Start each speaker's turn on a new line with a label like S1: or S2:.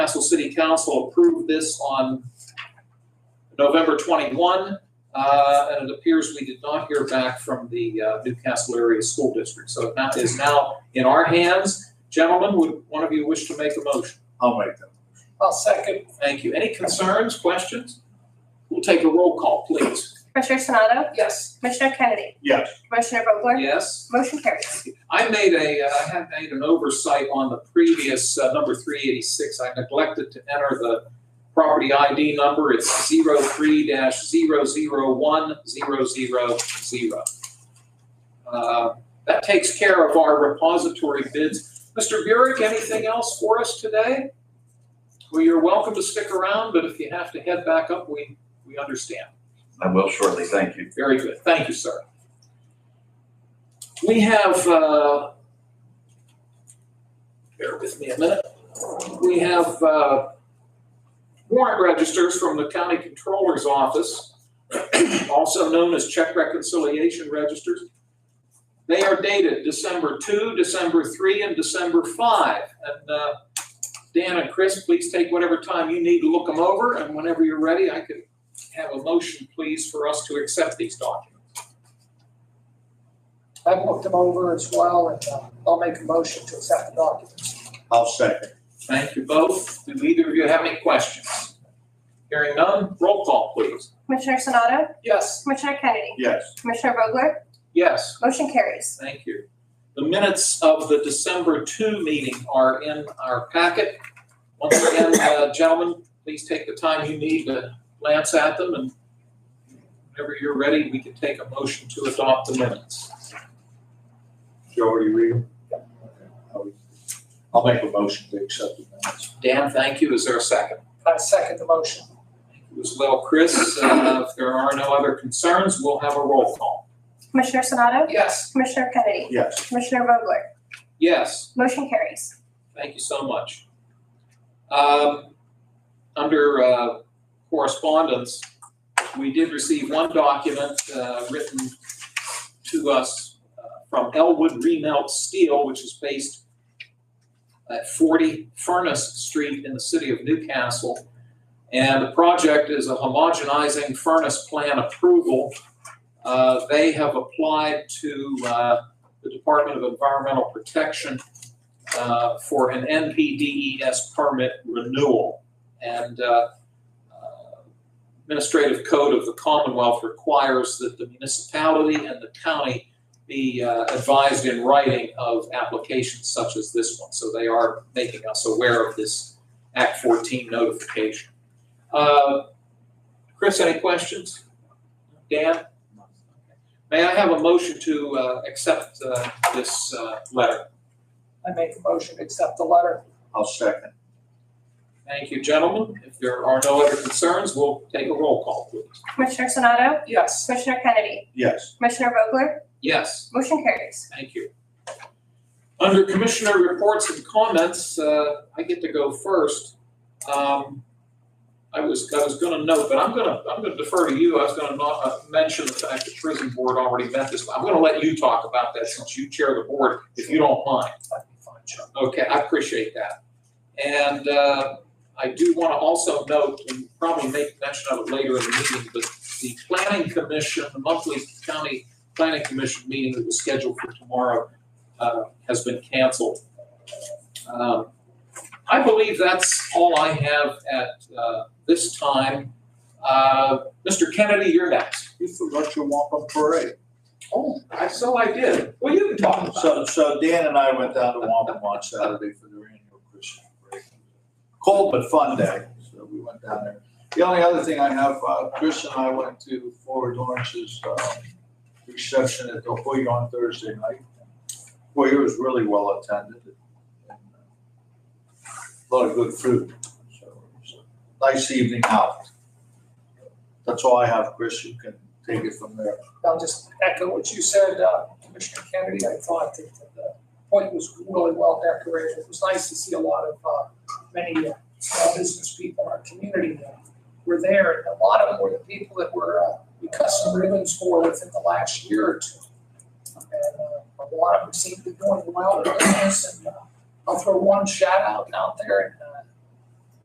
S1: Newcastle City Council approved this on November 21, uh, and it appears we did not hear back from the uh, Newcastle Area School District. So that is now in our hands. Gentlemen, would one of you wish to make a motion?
S2: I'll make them.
S1: I'll second. Thank you. Any concerns, questions? We'll take a roll call, please.
S3: Commissioner Sonato?
S1: Yes.
S3: Commissioner Kennedy?
S2: Yes.
S3: Commissioner Vogler?
S1: Yes.
S3: Motion carries.
S1: I made a, uh, I had made an oversight on the previous uh, number 386. I neglected to enter the property ID number. It's 03-001-000. Uh, That takes care of our repository bids. Mr. Burek, anything else for us today? Well, you're welcome to stick around, but if you have to head back up, we, we understand.
S4: I will shortly, thank you.
S1: Very good. Thank you, sir. We have, uh, bear with me a minute. We have uh, warrant registers from the county controller's office, also known as check reconciliation registers. They are dated December 2, December 3, and December 5. And uh, Dan and Chris, please take whatever time you need to look them over, and whenever you're ready, I can have a motion, please, for us to accept these documents.
S5: I've looked them over as well, and uh, I'll make a motion to accept the documents.
S2: I'll second.
S1: Thank you both. Do either of you have any questions? Hearing none, roll call, please.
S3: Commissioner Sonato?
S1: Yes.
S3: Commissioner Kennedy?
S2: Yes.
S3: Commissioner Vogler?
S1: Yes,
S3: Motion carries.
S1: thank you. The minutes of the December 2 meeting are in our packet. Once again, uh, gentlemen, please take the time you need to glance at them, and whenever you're ready, we can take a motion to adopt the minutes.
S2: Joe, are you reading? I'll make a motion to accept the minutes.
S1: Dan, thank you. Is there a second?
S5: I second the motion.
S1: Thank you as well, Chris. Uh, If there are no other concerns, we'll have a roll call.
S3: Commissioner Sonato?
S5: Yes.
S3: Commissioner Kennedy?
S2: Yes.
S3: Commissioner Vogler?
S1: Yes.
S3: Motion carries.
S1: Thank you so much. Um, Under uh, correspondence, we did receive one document uh, written to us uh, from Elwood Remelt Steel, which is based at 40 Furnace Street in the city of Newcastle. And the project is a homogenizing furnace plan approval. Uh, They have applied to uh, the Department of Environmental Protection uh, for an NPDES E permit renewal. And uh, uh, Administrative Code of the Commonwealth requires that the municipality and the county be uh, advised in writing of applications such as this one. So they are making us aware of this Act 14 notification. Uh, Chris, any questions? Dan? May I have a motion to uh, accept uh, this uh, letter?
S5: I make a motion to accept the letter.
S2: I'll second.
S1: Thank you, gentlemen. If there are no other concerns, we'll take a roll call, please.
S3: Commissioner Sonato?
S5: Yes.
S3: Commissioner Kennedy?
S2: Yes.
S3: Commissioner Vogler?
S1: Yes,
S3: Motion carries.
S1: thank you. Under Commissioner reports and comments, uh, I get to go first. Um, I was, I was gonna note, but I'm gonna, I'm gonna defer to you. I was gonna not, uh, mention the fact the prison board already met this. I'm gonna let you talk about that since you chair the board, if you don't mind.
S5: That'd be fine, Chuck.
S1: Okay, I appreciate that. And uh, I do want to also note, and probably make mention of it later in the meeting, but the planning commission, the monthly county planning commission meeting that was scheduled for tomorrow uh, has been canceled. Um, I believe that's all I have at uh, this time. Uh, Mr. Kennedy, you're next.
S2: You forgot your wampum parade.
S1: Oh, I, so I did. Well, you can talk about it.
S2: So, so Dan and I went down to wampum on Saturday for their annual Christmas parade. Cold but fun day, so we went down there. The only other thing I have, uh, Chris and I went to Forward Lawrence's, uh, reception at the Hoyer on Thursday night. Hoyer was really well attended. and uh, A Lot of good food, so it was a nice evening out. That's all I have, Chris, you can take it from there.
S5: I'll just echo what you said, uh, Commissioner Kennedy. I thought that the point was really well decorated. It was nice to see a lot of, uh, many uh, small business people in our community that were there. And a lot of them were the people that were, uh, we cut some ribbons for within the last year or two. And uh, a lot of them seem to be doing well in business. And uh, I'll throw one shout out out there. And uh,